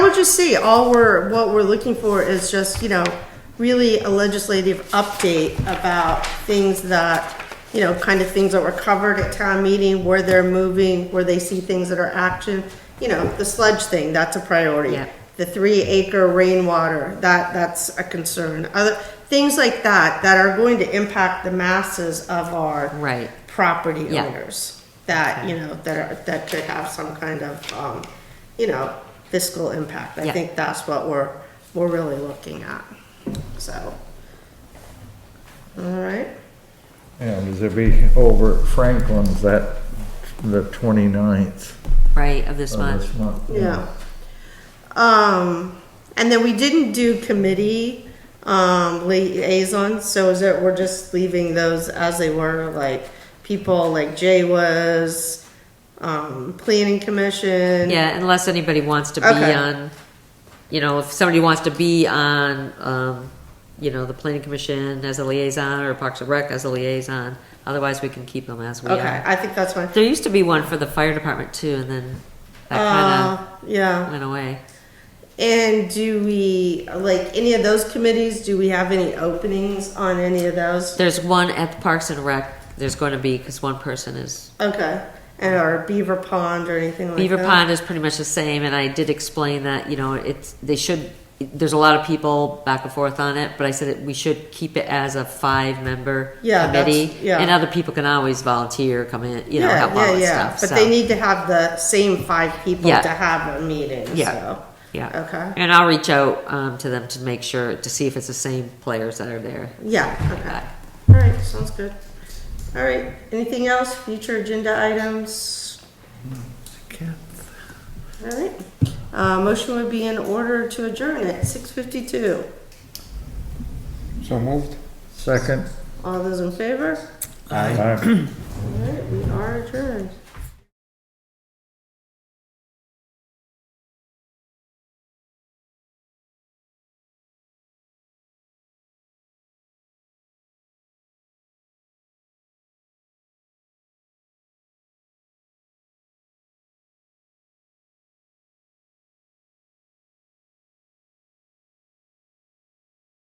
you see, all we're, what we're looking for is just, you know, really a legislative update about things that, you know, kind of things that were covered at town meeting, where they're moving, where they see things that are action. You know, the sludge thing, that's a priority. Yeah. The three acre rainwater, that, that's a concern. Other, things like that, that are going to impact the masses of our Right. property Yeah. owners that, you know, that are, that could have some kind of, um, you know, fiscal impact. I Yeah. think that's what we're, we're really looking at, so. All right, And it'll be over at Franklin's that, the 29th right, of this of month. this month. yeah. Um, and then we didn't do committee, um, liaisons, so is it, we're just leaving those as they were, like, people like Jay was, um, planning commission. Yeah, unless anybody wants to be Okay. on, you know, if somebody wants to be on, um, you know, the planning commission as a liaison or Parks and Rec as a liaison. Otherwise, we can keep them as we Okay, are. I think that's fine. There used to be one for the fire department too, and then that Uh, kinda yeah. went away. And do we, like, any of those committees, do we have any openings on any of those? There's one at the Parks and Rec, there's going to be, because one person is, Okay. And or Beaver Pond or anything like Beaver that? Pond is pretty much the same, and I did explain that, you know, it's, they should, there's a lot of people back and forth on it, but I said that we should keep it as a five-member Yeah, that's- committee. yeah. And other people can always volunteer, come in, you know, yeah, help yeah, out with yeah. stuff, But so. they need to have the same five people Yeah. to have a meeting. Yeah. So. Yeah. Okay. And I'll reach out, um, to them to make sure, to see if it's the same players that are there. Yeah. Okay. All right. Sounds good. All right. Anything else? Future agenda items? All right. Uh, motion would be in order to adjourn at 6:52. So moved. Second. All those in favor? Aye. All right, we are adjourned.